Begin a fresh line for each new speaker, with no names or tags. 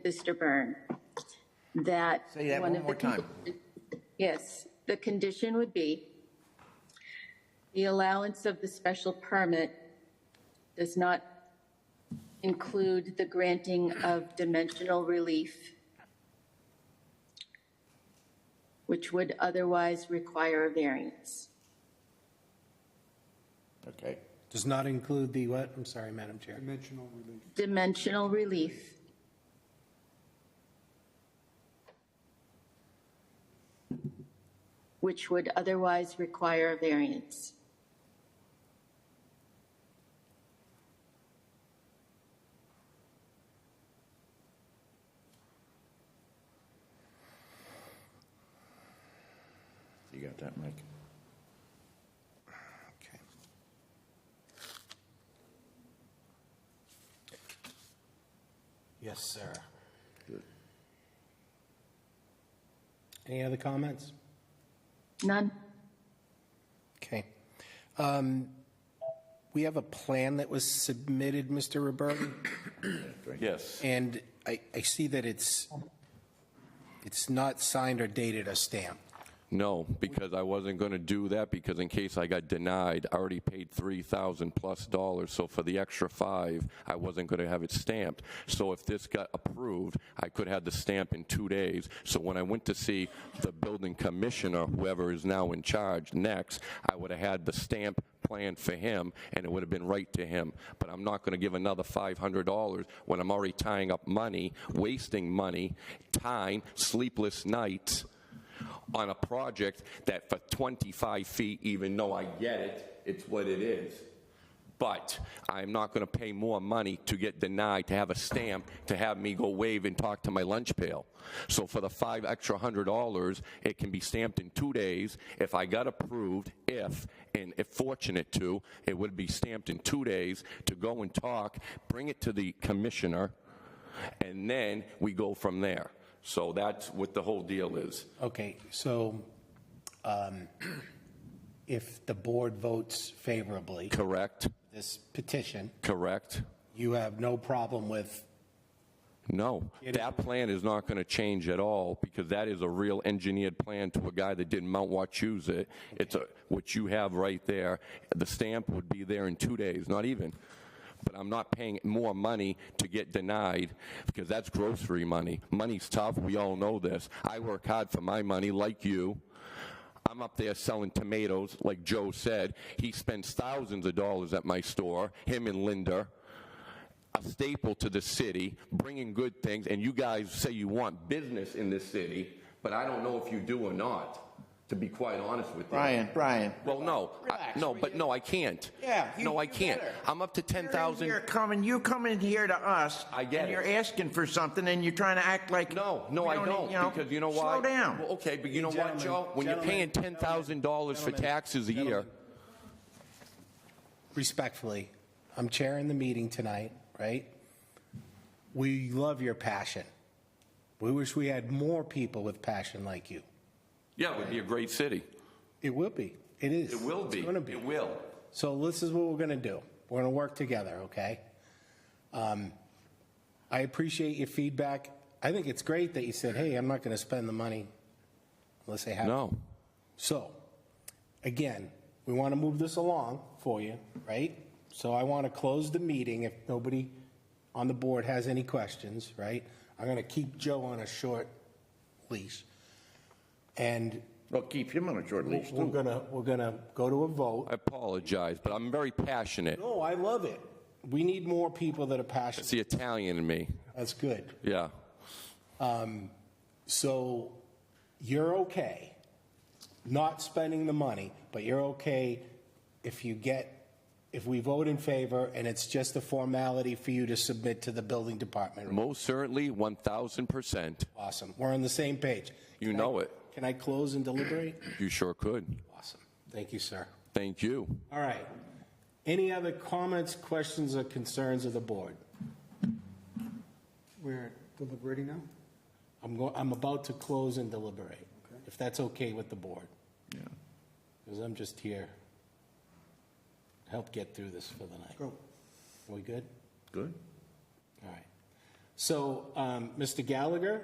Mr. Byrne, that.
Say that
one
one
of
more
the
time.
condi- Yes, the condition would be the allowance of the special permit does not include the granting of dimensional relief, which would otherwise require a variance.
Okay.
Does not include the what? I'm sorry, Madam Chair.
Dimensional relief.
Dimensional relief, which would otherwise require a variance.
You got that, Mike?
Okay. Yes, sir.
Good.
Any other comments?
None?
Okay. Um, We have a plan that was submitted, Mr. Roberti,
Yes,
and I, I see that it's, it's not signed or dated or stamped.
no, because I wasn't going to do that, because in case I got denied, I already paid 3,000 plus dollars, so for the extra five, I wasn't going to have it stamped. So if this got approved, I could have the stamp in two days. So when I went to see the building commissioner, whoever is now in charge next, I would have had the stamp plan for him, and it would have been right to him. But I'm not going to give another $500 when I'm already tying up money, wasting money, time, sleepless nights, on a project that for 25 feet, even though I get it, it's what it is. But I'm not going to pay more money to get denied, to have a stamp, to have me go wave and talk to my lunch pail. So for the five extra hundred dollars, it can be stamped in two days. If I got approved, if, and if fortunate to, it would be stamped in two days to go and talk, bring it to the commissioner, and then we go from there. So that's what the whole deal is.
Okay, so um, if the board votes favorably,
Correct,
this petition,
correct.
you have no problem with,
No, that plan is not going to change at all because that is a real engineered plan to a guy that did Mount Wachusett. It's a, what you have right there, the stamp would be there in two days, not even. But I'm not paying more money to get denied because that's grocery money. Money's tough, we all know this. I work hard for my money, like you. I'm up there selling tomatoes, like Joe said. He spends thousands of dollars at my store, him and Linda a staple to the city, bringing good things, and you guys say you want business in this city, but I don't know if you do or not, to be quite honest with you.
Brian, Brian.
Well, no, I- no, but no, I can't.
Yeah, you-
No, I
you
can't.
better.
I'm up to ten
You're
thousand.
coming, you coming here to us.
I get
And
it.
you're asking for something and you're trying to act like.
No, no,
we e-
I don't,
you know,
because you know why?
Slow down.
Well, okay, but you know what,
Gentlemen,
Joe? When you're paying ten
gentlemen,
thousand dollars for
gentlemen,
taxes a year,
gentlemen. respectfully, I'm chairing the meeting tonight, right? We love your passion. We wish we had more people with passion like you.
yeah, it would be a great city.
It will be. It is.
It will be.
It's going to be.
It will.
So this is what we're going to do. We're going to work together, okay? Um, I appreciate your feedback. I think it's great that you said, hey, I'm not going to spend the money unless I have to.
No,
So, again, we want to move this along for you, right? So I want to close the meeting if nobody on the board has any questions, right? I'm going to keep Joe on a short leash. And
Well, keep him on a short leash
we're
too.
going to, we're going to go to a vote.
I apologize, but I'm very passionate.
No, I love it. We need more people that are
It's
passionate.
the Italian in me,
That's good.
yeah.
So you're okay not spending the money, but you're okay if you get, if we vote in favor and it's just a formality for you to submit to the building department.
Most certainly, one thousand percent.
Awesome. We're on the same page.
You know it.
Can I close and deliberate?
You sure could.
Awesome. Thank you, sir.
Thank you.
All right. Any other comments, questions, or concerns of the board?
We're deliberating now?
I'm going, I'm about to close and deliberate, if that's okay with the board. Because I'm just here to help get through this for the night.
Go.
We good?
Good.
All right. So, um, Mr. Gallagher,